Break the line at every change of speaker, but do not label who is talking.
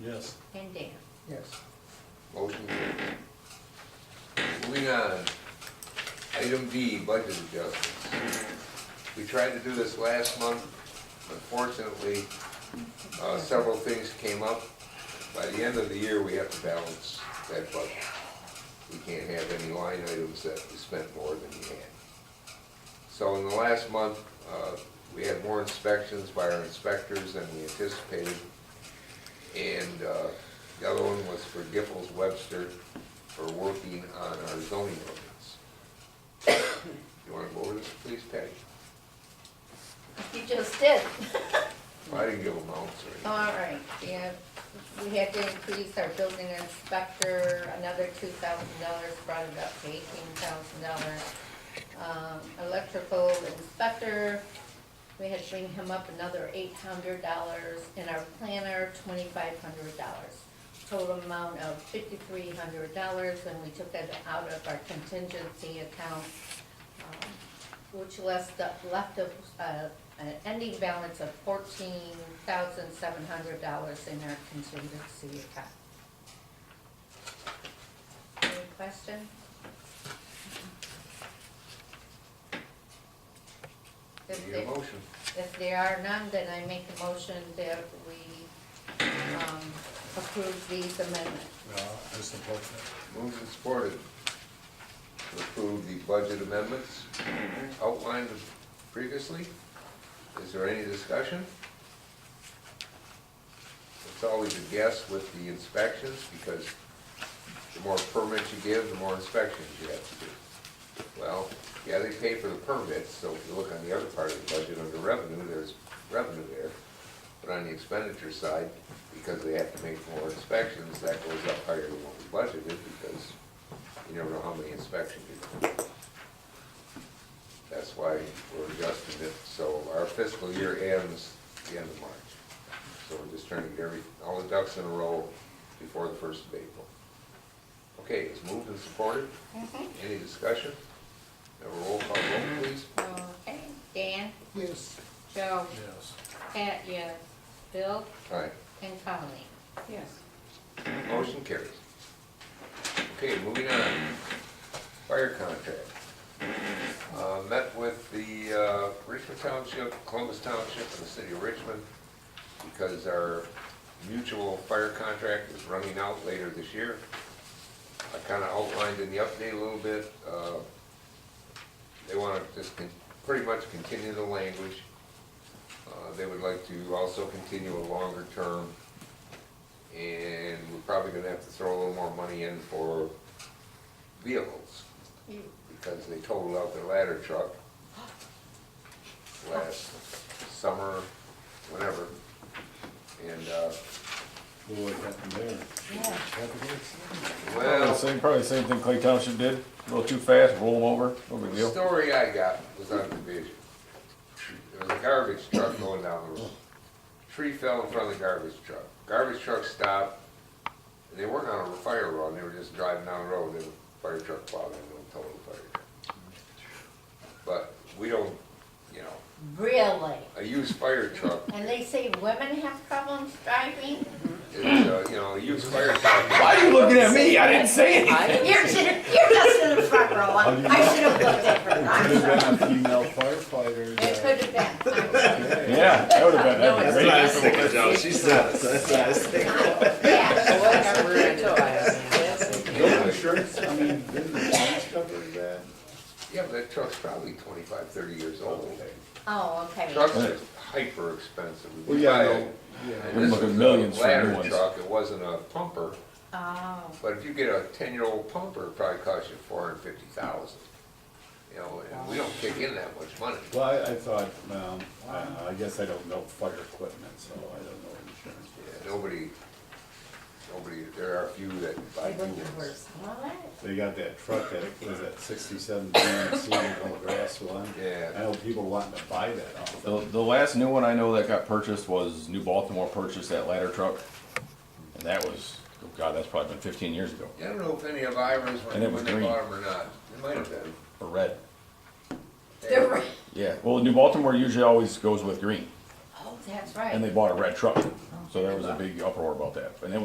Yes.
and Dan.
Yes.
Motion carried. Moving on, item D, budget adjustments. We tried to do this last month, unfortunately, uh, several things came up. By the end of the year, we have to balance that budget. We can't have any line items that we spent more than we had. So in the last month, uh, we had more inspections by our inspectors than we anticipated. And uh, the other one was for Giffords Webster for working on our zoning ordinance. You want to go over this, please, Patty?
You just did.
I didn't give amounts or anything.
All right, yeah, we had to increase our building inspector, another two thousand dollars, brought it up to eighteen thousand dollars. Um, electrical inspector, we had to bring him up another eight hundred dollars, and our planner, twenty-five hundred dollars. Total amount of fifty-three hundred dollars, and we took that out of our contingency account, um, which left, left of, uh, an ending balance of fourteen thousand seven hundred dollars in our contingency account. Any question? If
Need a
there-
motion?
if there are none, then I make a motion that we um, approve these amendments.
Yeah, I support that.
Moved and supported to approve the budget amendments outlined previously. Is there any discussion? It's always a guess with the inspections, because the more permits you give, the more inspections you have to do. Well, yeah, they pay for the permits, so if you look on the other part of the budget under revenue, there's revenue there. But on the expenditure side, because they have to make more inspections, that goes up higher than what we budgeted because you never know how many inspections you're gonna do. That's why we're adjusting it, so our fiscal year ends the end of March. So we're just trying to get every, all the ducks in a row before the first of April. Okay, it's moved and supported. Any discussion? Have a roll call vote, please.
Okay, Dan,
Yes.
Joe,
Yes.
Pat, yes, Bill,
Aye.
and Colleen.
Yes.
Motion carries. Okay, moving on. Fire contract. Uh, Met with the uh, Richmond Township, Columbus Township, and the city of Richmond because our mutual fire contract is running out later this year. I kind of outlined in the update a little bit. uh, They want to just con- pretty much continue the language. Uh, They would like to also continue a longer term and we're probably gonna have to throw a little more money in for vehicles, because they totaled out their ladder truck last summer, whatever, and, uh,
Well, What happened there?
Yeah.
Well,
well,
same, probably same thing Clay Township did, a little too fast, roll them over, no big
the
deal.
story I got was on Division. There was a garbage truck going down the road. Tree fell in front of the garbage truck. Garbage truck stopped, and they weren't on a fire run, they were just driving down the road, and the fire truck plowed into them, total fire truck. But we don't, you know,
Really?
a used fire truck,
And they say women have problems driving?
is, uh, you know, a used fire truck,
Why are you looking at me? I didn't say anything.
You're, you're just in the front row, I I should have looked at her. I'm sorry.
Could have been a female firefighter.
It
that-
could have been, I'm sorry.
Yeah, that would've been, that'd been great.
That's not as thick as- she's not, that's not as thick.
yeah.
Whatever it
Don't insurance, I mean, didn't the insurance cover that?
yeah, but that truck's probably twenty-five, thirty years old.
Oh, okay.
Trucks are hyper expensive.
Well, yeah, I
Buy a-
know. Yeah.
And this
Looking
was
millions
a
for new
ladder
ones.
truck, it wasn't a pumper,
Oh,
but if you get a ten-year-old pumper, it probably costs you four hundred fifty thousand. You know, and we don't kick in that much money.
Well, I, I thought, um, I, I guess I don't know fire equipment, so I don't know insurance.
Yeah, Nobody, nobody, there are a few that buy new ones.
all right.
They got that truck that, was that sixty-seven grand Seagull grass one?
Yeah.
I know people wanting to buy that off.
The, the last new one I know that got purchased was New Baltimore purchased that ladder truck. And that was, oh god, that's probably been fifteen years ago,
Yeah, I don't know if any of Ira's,
And it
when
was
when they
green.
bought them or not, it might have been.
or red.
They're right.
Yeah, well, New Baltimore usually always goes with green.
Oh, That's right.
and they bought a red truck. So there was a big uproar about that. And it